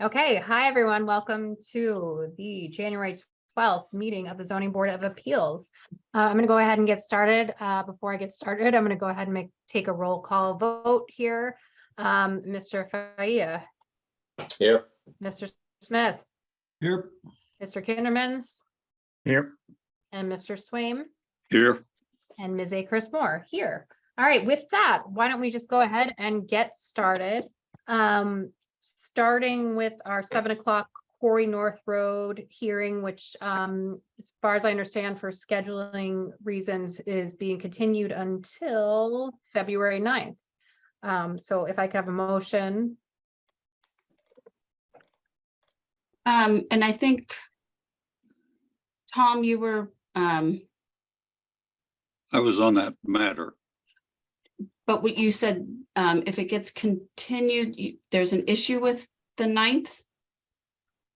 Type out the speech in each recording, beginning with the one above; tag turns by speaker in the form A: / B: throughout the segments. A: Okay, hi, everyone. Welcome to the January 12th meeting of the Zoning Board of Appeals. Uh, I'm going to go ahead and get started. Uh, Before I get started, I'm going to go ahead and make, take a roll call vote here. Um, Mr. Faia,
B: Here.
A: Mr. Smith,
C: Here.
A: Mr. Kindermans,
C: Here.
A: and Mr. Swaim.
C: Here.
A: And Ms. A. Chris Moore here. All right, with that, why don't we just go ahead and get started? Um, starting with our seven o'clock Quarry North Road hearing, which um, as far as I understand for scheduling reasons is being continued until February 9th. Um, so if I could have a motion,
D: Um, and I think, Tom, you were, um,
E: I was on that matter.
D: but what you said, um, if it gets continued, you, there's an issue with the ninth?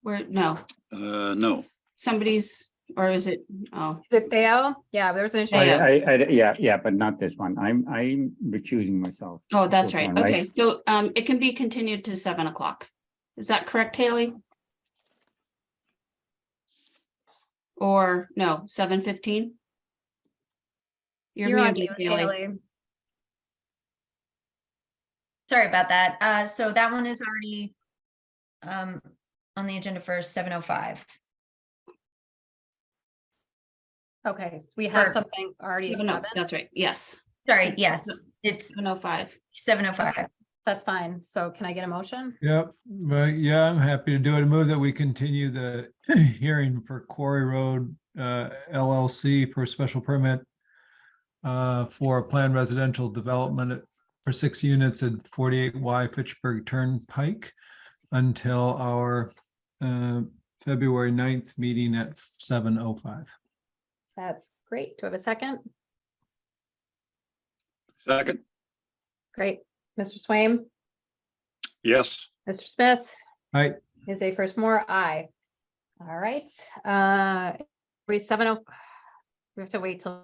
D: Where, no,
E: Uh, no,
D: somebody's, or is it, oh,
A: is it Theo? Yeah, there's an
D: Oh,
A: issue.
C: I,
D: yeah.
C: I, I- yeah, yeah, but not this one. I'm, I'm recusing myself.
D: oh, that's
C: This
D: right,
C: one,
D: okay, so, um, it can be continued to seven o'clock. Is that correct, Haley? Or, no, seven fifteen? You're
A: You're on
D: muted,
A: mute,
D: Haley.
A: Haley.
F: Sorry about that. Uh, so that one is already um, on the agenda for seven oh five.
A: Okay, we have
F: Or-
A: something already. at
D: Seven oh-
A: seven.
D: That's right, yes,
F: Sorry, yes, it's
D: seven oh five.
F: seven oh five.
A: That's fine. So can I get a motion?
G: Yep, right, yeah, I'm happy to do it. Move that we continue the hearing for Quarry Road uh, LLC for a special permit uh, for a planned residential development at- for six units at 48Y Fitchburg Turnpike until our uh, February 9th meeting at 7:05.
A: That's great. Do I have a second?
E: second,
A: Great. Mr. Swaim,
E: yes,
A: Mr. Smith.
G: Aye.
A: Ms. A first more, aye. All right, uh, we seven oh, we have to wait till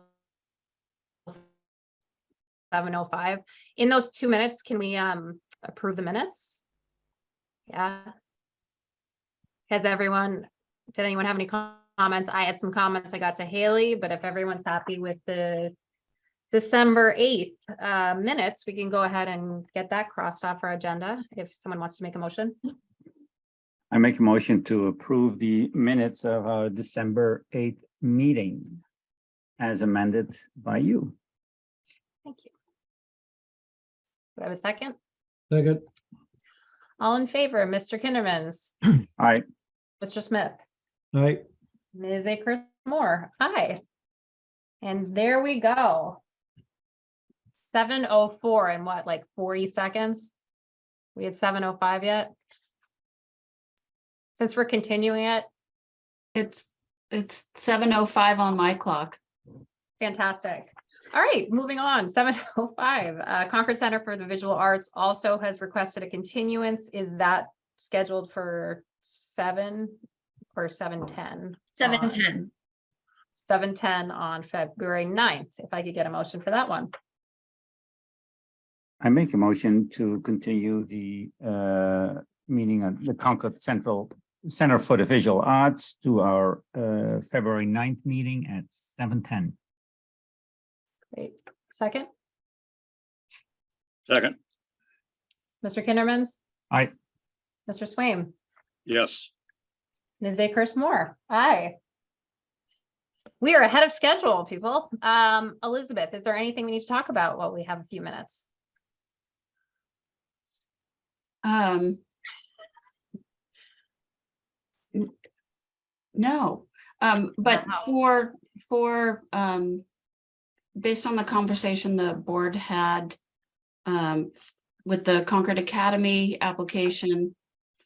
A: seven oh five. In those two minutes, can we, um, approve the minutes? Yeah. Has everyone, did anyone have any com- comments? I had some comments I got to Haley, but if everyone's happy with the December eighth, uh, minutes, we can go ahead and get that crossed off our agenda if someone wants to make a motion.
C: I make a motion to approve the minutes of our December eighth meeting as amended by you.
A: Thank you. Do I have a second?
G: Second.
A: All in favor, Mr. Kindermans,
C: I,
A: Mr. Smith,
G: Aye.
A: Ms. Akers Moore, aye. And there we go. Seven oh four in what, like forty seconds? We had seven oh five yet? Since we're continuing it,
D: It's, it's seven oh five on my clock.
A: Fantastic. All right, moving on, seven oh five, uh, Concord Center for the Visual Arts also has requested a continuance. Is that scheduled for seven or seven ten?
F: Seven ten.
A: Seven ten on February 9th. if I could get a motion for that one.
C: I make a motion to continue the, uh, meeting at the Concord Central Center for the Visual Arts to our, uh, February 9th meeting at seven ten.
A: Great. Second,
E: second,
A: Mr. Kindermans.
C: Aye.
A: Mr. Swaim,
E: yes,
A: Ms. Akers Moore, aye. We are ahead of schedule, people. Um, Elizabeth, is there anything we need to talk about while we have a few minutes?
D: Um. n- No, um, but
A: Wow.
D: for, for, um. Based on the conversation the board had, um, f- with the Concord Academy application.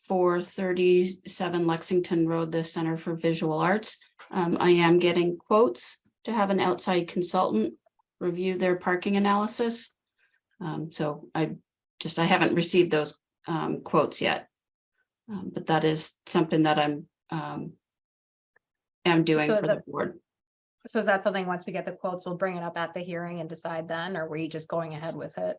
D: For thirty-seven Lexington Road, the Center for Visual Arts, um, I am getting quotes to have an outside consultant. Review their parking analysis. Um, so I just, I haven't received those um, quotes yet. Um, but that is something that I'm, um, am doing
A: So
D: for
A: is
D: the
A: that-
D: board.
A: So is that something, once we get the quotes, we'll bring it up at the hearing and decide then, or were you just going ahead with it?